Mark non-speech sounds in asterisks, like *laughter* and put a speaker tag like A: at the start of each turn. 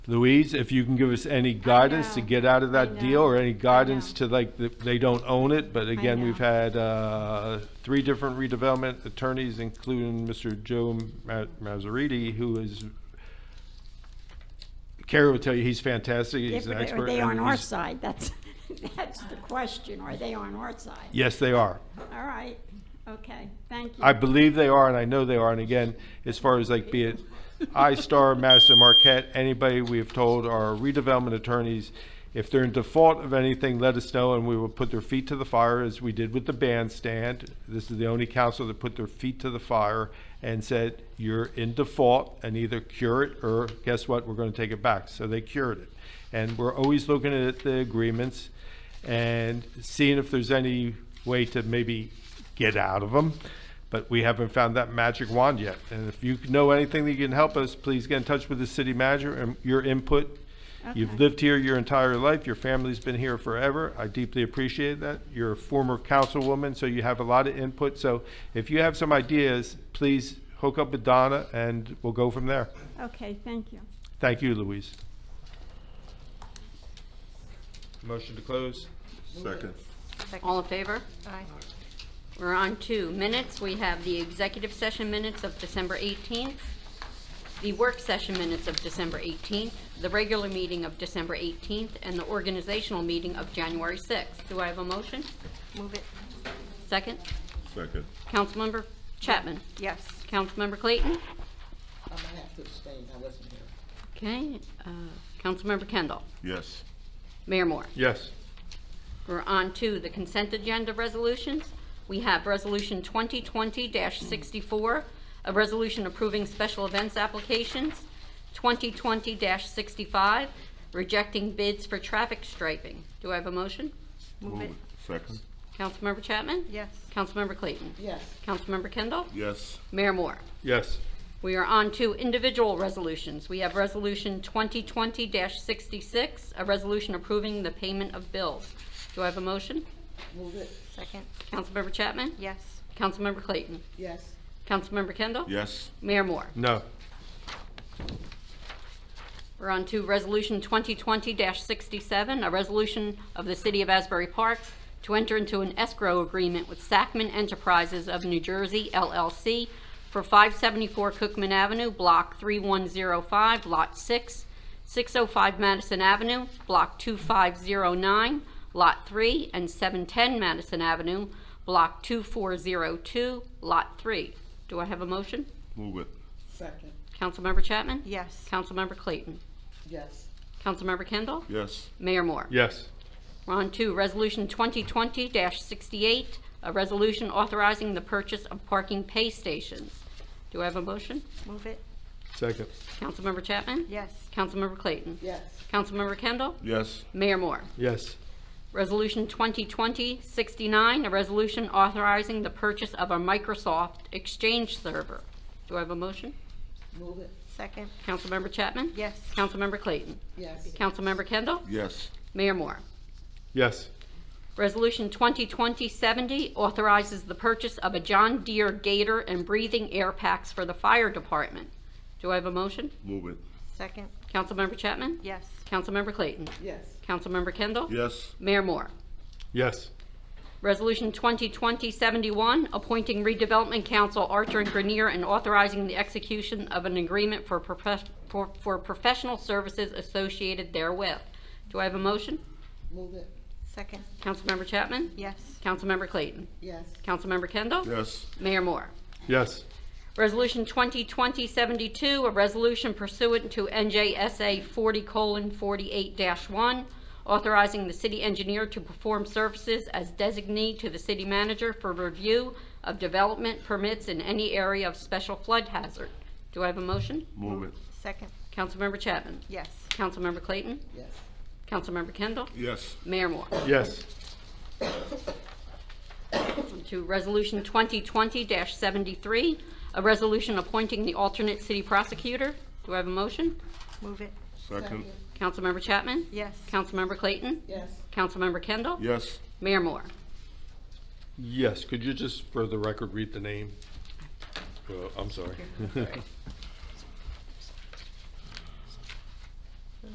A: Louise, if you can give us any guidance to
B: know.
A: get out of
B: I
A: that
B: know.
A: deal or any
B: I
A: guidance
B: know.
A: to like, th- they don't own it, but again,
B: know.
A: we've had uh, three different redevelopment attorneys, including Mr. Joe Ma- Mazzariti, who is, Carrie will tell you, he's fantastic, he's
B: If-
A: an expert.
B: Are they
A: and
B: on our
A: he's-
B: side? That's, *laughs* that's the question. Are they on our side?
A: Yes, they are.
B: All right, okay, thank you.
A: I believe they are, and I know they are. And again, as far as like be it iStar, Madison Marquette, anybody we have told our redevelopment attorneys, if they're in default of anything, let us know and we will put their feet to the fire as we did with the bandstand. This is the only council that put their feet to the fire and said, you're in default and either cure it or guess what, we're going to take it back. So they cured it. And we're always looking at the agreements and seeing if there's any way to maybe get out of them. But we haven't found that magic wand yet. And if you know anything that you can help us, please get in touch with the city manager and your input. You've
B: Okay.
A: lived here your entire life. Your family's been here forever. I deeply appreciate that. You're a former councilwoman, so you have a lot of input. So if you have some ideas, please hook up with Donna and we'll go from there.
B: Okay, thank you.
A: Thank you, Louise. Motion to close?
C: Second.
D: All in favor? Aye. We're on to minutes. We have the executive session minutes of December 18th, the work session minutes of December 18th, the regular meeting of December 18th, and the organizational meeting of January 6th. Do I have a motion? Move it. Second?
C: Second.
D: Councilmember Chapman?
E: Yes.
D: Councilmember Clayton?
F: I might have to abstain, I wasn't here.
D: Okay. uh, Councilmember Kendall?
C: Yes.
D: Mayor Moore?
A: Yes.
D: We're on to the consent agenda resolutions. We have Resolution 2020-64, a resolution approving special events applications, 2020-65, rejecting bids for traffic striping. Do I have a motion?
C: Move it. Second.
D: Councilmember Chapman?
E: Yes.
D: Councilmember Clayton?
F: Yes,
D: Councilmember Kendall?
C: Yes.
D: Mayor Moore?
A: Yes.
D: We are on to individual resolutions. We have Resolution 2020-66, a resolution approving the payment of bills. Do I have a motion?
F: move it,
E: Second.
D: Councilmember Chapman?
E: Yes.
D: Councilmember Clayton?
F: yes,
D: Councilmember Kendall?
C: Yes.
D: Mayor Moore?
A: No.
D: We're on to Resolution 2020-67, a resolution of the City of Asbury Park to enter into an escrow agreement with Sacman Enterprises of New Jersey LLC for 574 Cookman Avenue, Block 3105, Lot 6, 605 Madison Avenue, Block 2509, Lot 3, and 710 Madison Avenue, Block 2402, Lot 3. Do I have a motion?
C: Move it.
F: second,
D: Councilmember Chapman?
E: Yes.
D: Councilmember Clayton?
F: yes,
D: Councilmember Kendall?
C: Yes.
D: Mayor Moore?
A: Yes.
D: We're on to Resolution 2020-68, a resolution authorizing the purchase of parking pay stations. Do I have a motion?
E: Move it.
A: Second.
D: Councilmember Chapman?
E: Yes.
D: Councilmember Clayton?
F: yes,
D: Councilmember Kendall?
C: Yes.
D: Mayor Moore?
A: Yes.
D: Resolution 2020-69, a resolution authorizing the purchase of a Microsoft Exchange server. Do I have a motion?
F: move it,
E: Second.
D: Councilmember Chapman?
E: Yes.
D: Councilmember Clayton?
F: yes,
D: Councilmember Kendall?
C: Yes.
D: Mayor Moore?
A: Yes.
D: Resolution 2020-70 authorizes the purchase of a John Deere Gator and breathing air packs for the fire department. Do I have a motion?
C: Move it.
E: Second.
D: Councilmember Chapman?
E: Yes.
D: Councilmember Clayton?
F: yes,
D: Councilmember Kendall?
C: Yes.
D: Mayor Moore?
A: Yes.
D: Resolution 2020-71, appointing redevelopment council Archer and Grenier and authorizing the execution of an agreement for profes- for for professional services associated therewith. Do I have a motion?
F: move it,
E: Second.
D: Councilmember Chapman?
E: Yes.
D: Councilmember Clayton?
F: yes,
D: Councilmember Kendall?
C: Yes.
D: Mayor Moore?
A: Yes.
D: Resolution 2020-72, a resolution pursuant to NJSA 40:48-1, authorizing the city engineer to perform services as designee to the city manager for review of development permits in any area of special flood hazard. Do I have a motion?
C: Move it.
E: Second.
D: Councilmember Chapman?
E: Yes.
D: Councilmember Clayton?
F: yes,
D: Councilmember Kendall?
C: Yes.
D: Mayor Moore?
A: Yes.
D: to Resolution 2020-73, a resolution appointing the alternate city prosecutor. Do I have a motion?
E: Move it.
C: Second.
D: Councilmember Chapman?
E: Yes.
D: Councilmember Clayton?
F: yes,
D: Councilmember Kendall?
C: Yes.
D: Mayor Moore?
A: Yes. Could you just, for the record, read the name? Uh, I'm sorry.